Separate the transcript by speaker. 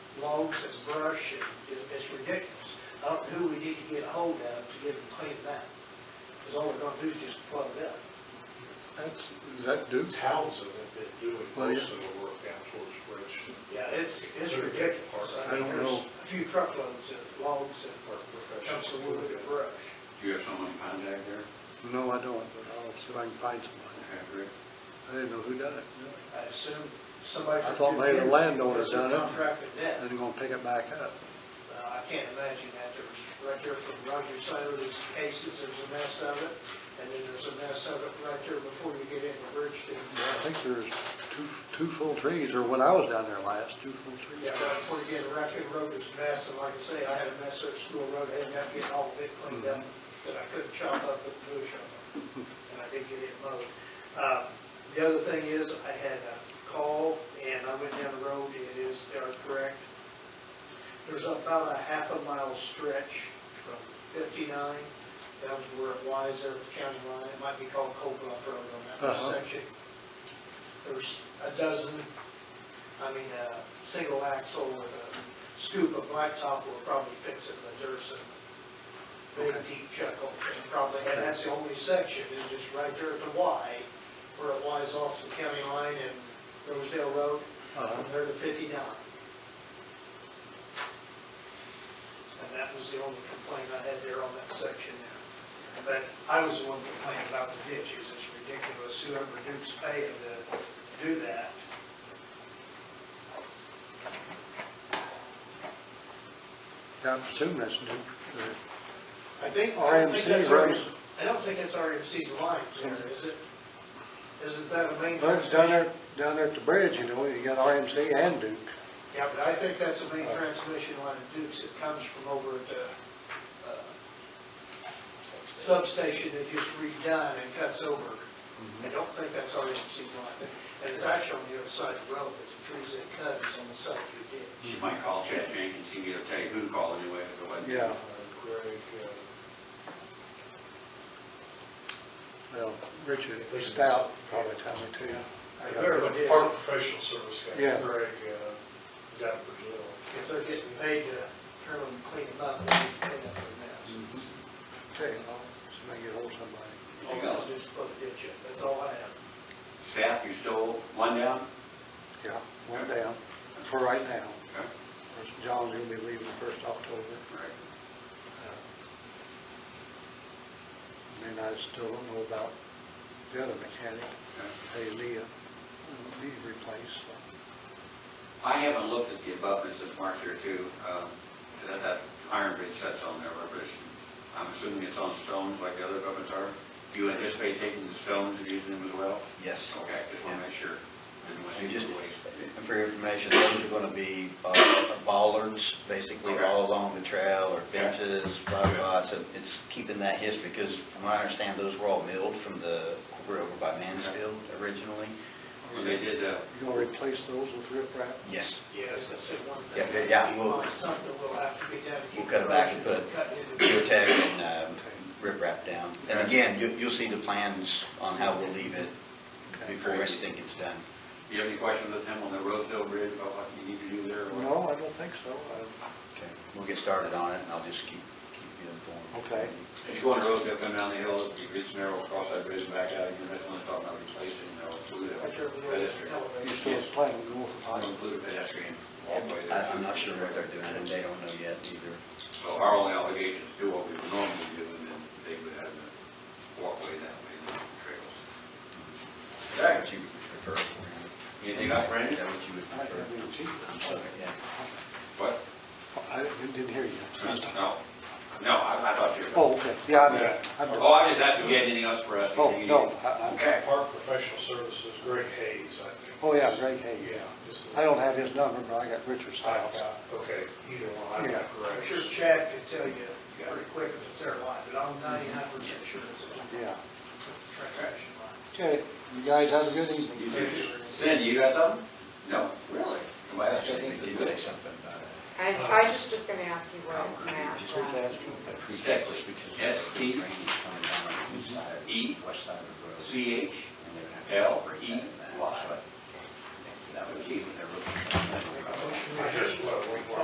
Speaker 1: logs and brush, and it's ridiculous. I don't know who we need to get a hold of to get them cleaned out, because all we're gonna do is just plug it up.
Speaker 2: That's, is that Duke's house?
Speaker 3: Townsend have been doing
Speaker 2: Well, Oh, yeah.
Speaker 3: most of the work down towards Bridgeton.
Speaker 1: Yeah, it's, it's ridiculous.
Speaker 2: I
Speaker 1: mean,
Speaker 2: don't
Speaker 1: there's A
Speaker 2: know.
Speaker 1: few truckloads of logs and chunks of wood and brush.
Speaker 4: Do you have someone in contact there?
Speaker 2: No, I don't, but I'll see if I can find somebody.
Speaker 4: Okay, great.
Speaker 2: I didn't know who done it.
Speaker 1: I assume somebody.
Speaker 2: I
Speaker 1: from
Speaker 2: thought maybe the
Speaker 1: Duke
Speaker 2: landowner
Speaker 1: Energy
Speaker 2: done it.
Speaker 1: Contracted that.
Speaker 2: Then they're gonna pick it back up.
Speaker 1: Uh, I can't imagine that. There was, right there from Roger Sailor's cases, there's a mess of it. And then there's a mess of it right there before you get into Bridgeton.
Speaker 2: I think there's two, two full trees, or when I was down there last, two full trees.
Speaker 1: Yeah, right before you get to Raccoon Road, there's a mess. And like I say, I had a mess there at School Road. I ended up getting all of it cleaned up that I couldn't chop up with the bush on it. And I did get it mowed. Uh, The other thing is, I had a call and I went down the road. It is, they are correct. There's about a half a mile stretch from 59 down to where it lies there at the county line. It might be called Cold Bluff Road on that
Speaker 2: Uh-huh.
Speaker 1: section. There's a dozen, I mean, a single axle with a scoop of blacktop will probably fix it, but there's some big deep chuck hole there probably. And that's the only section, is just right there at the Y where it lies off the county line and Rosedale Road,
Speaker 2: Uh-huh.
Speaker 1: from there to 59. And that was the only complaint I had there on that section there. But I was the one complaining about the ditches, it's ridiculous, whoever Duke's paying to do that.
Speaker 2: I assume that's Duke. uh,
Speaker 1: I think, I don't think
Speaker 2: RMC
Speaker 1: that's our,
Speaker 2: runs-
Speaker 1: I don't think that's RMC's lines there, is it? Isn't that a main?
Speaker 2: Well, it's down there, down there at the bridge, you know, you got RMC and Duke.
Speaker 1: Yeah, but I think that's the main transmission line of Duke's, it comes from over at the uh, substation that just redone and cuts over. I don't think that's RMC's line, I think- and it's actually on the other side of the road, but the trees that cut is on the side of your ditch.
Speaker 4: You might call Chad Jenkins, he can get a tell you who to call anyway if it wasn't.
Speaker 2: Yeah,
Speaker 3: Uh, Greg, uh,
Speaker 2: well, Richard Stout probably told me too. I got
Speaker 3: they're
Speaker 2: it.
Speaker 3: the park professional service guy,
Speaker 2: Yeah.
Speaker 3: Greg, uh, is out of Brazil.
Speaker 1: If they're getting paid to turn them and clean them up, they need to clean up their mess.
Speaker 2: Okay, I'll- somebody get hold of somebody.
Speaker 1: Also,
Speaker 4: Anything else?
Speaker 1: just put a ditch in, that's all I have.
Speaker 4: Staff, you still one down?
Speaker 2: Yeah, one down, for right now.
Speaker 4: Okay,
Speaker 2: Of course, John's gonna be leaving the first October.
Speaker 4: all right.
Speaker 2: Uh, And I still don't know about the other mechanic, hey, Leah, he replaced.
Speaker 4: I haven't looked at the abutments that's marked here too, um, that, that iron bridge sets on there, but it's- I'm assuming it's on stones like the other abutments are. Do you anticipate taking the stones and using them as well?
Speaker 5: Yes.
Speaker 4: Okay, just want to make sure. Didn't want to
Speaker 5: And
Speaker 4: see
Speaker 5: just,
Speaker 4: the waste.
Speaker 5: and for your information, those are gonna be uh, bollards, basically
Speaker 4: Okay.
Speaker 5: all along the trail, or
Speaker 4: Yeah.
Speaker 5: benches, blah, blah,
Speaker 4: Yeah.
Speaker 5: blah. So it's keeping that history, because from what I understand, those were all milled from the, over over by Mansfield originally.
Speaker 4: When they did, uh,
Speaker 2: You gonna replace those with riprap?
Speaker 5: Yes.
Speaker 1: Yeah, I was gonna say one
Speaker 5: Yeah,
Speaker 1: thing.
Speaker 5: yeah, yeah, we'll-
Speaker 1: Like Something will have to be done. to
Speaker 5: We'll
Speaker 1: keep
Speaker 5: cut it back and
Speaker 1: erosion
Speaker 5: put
Speaker 1: from cutting into the-
Speaker 5: Geotech and um, riprap down. And
Speaker 4: Okay.
Speaker 5: again, you, you'll see the plans on how we'll leave it before
Speaker 4: Great.
Speaker 5: anything gets done.
Speaker 4: do you have any questions with him on the Rosedale Bridge about what you need to do there? or what?
Speaker 2: No, I don't think so. I-
Speaker 5: Okay. We'll get started on it, and I'll just keep, keep you informed.
Speaker 2: Okay.
Speaker 4: As you go on the road, you come down the hill, you reach Narrows, cross that bridge and back out, again. that's when they talk about replacing
Speaker 1: Right there, the
Speaker 4: the
Speaker 1: elevator.
Speaker 4: pedestrian.
Speaker 2: You
Speaker 1: Elevator.
Speaker 2: still plan to go
Speaker 4: I'm
Speaker 2: with
Speaker 4: gonna
Speaker 2: it?
Speaker 4: include a pedestrian walkway there.
Speaker 5: I, I'm not sure what they're doing, and they don't know yet either.
Speaker 4: So our only obligation is to do what we would normally do, and then they would have the walkway that way, and the trails. Okay.
Speaker 5: What you prefer.
Speaker 4: Anything else, Randy?
Speaker 5: Is that what you would
Speaker 2: I
Speaker 5: prefer?
Speaker 2: I mean, gee,
Speaker 5: I'm sorry, yeah.
Speaker 4: What?
Speaker 2: I didn't didn't hear you.
Speaker 4: No, no, I, I thought you were.
Speaker 2: Oh, okay, yeah, I'm done. I'm done.
Speaker 4: Oh, I just asked if you had anything else for us.
Speaker 2: Oh,
Speaker 4: Anything you
Speaker 2: no,
Speaker 4: need?
Speaker 2: I- I-
Speaker 4: Okay.
Speaker 3: Park professional services, Greg Hayes, I think.
Speaker 2: oh, yeah, Greg Hay, yeah.
Speaker 3: just a-
Speaker 2: I don't have his number, but I got Richard
Speaker 3: I
Speaker 2: Stout.
Speaker 3: got- Oh, Okay, either one, I
Speaker 2: Yeah.
Speaker 3: got Greg.
Speaker 1: I'm sure Chad can tell you pretty quick if it's their line, but I'm ninety-nine percent sure it's a
Speaker 2: Yeah.
Speaker 1: transaction line.
Speaker 2: Okay, you guys have a good
Speaker 4: You
Speaker 2: evening.
Speaker 4: too. Cindy, you got something? No, really? Somebody else got
Speaker 5: Actually,
Speaker 4: anything
Speaker 5: they did
Speaker 4: for
Speaker 5: say
Speaker 4: this?
Speaker 5: something about it.
Speaker 6: I, I was just gonna ask you what
Speaker 5: Um,
Speaker 6: I
Speaker 5: just
Speaker 6: asked
Speaker 5: wanted to
Speaker 6: last.
Speaker 5: ask you about who
Speaker 4: Step-
Speaker 5: does, because
Speaker 4: S T
Speaker 5: the drainage coming down on the east side,
Speaker 4: E
Speaker 5: West side of the road.
Speaker 4: C H
Speaker 5: and they would have to
Speaker 4: L
Speaker 5: break
Speaker 4: E
Speaker 5: that back,
Speaker 4: Y.
Speaker 5: E. so That would be what they're looking for.
Speaker 3: I just, well,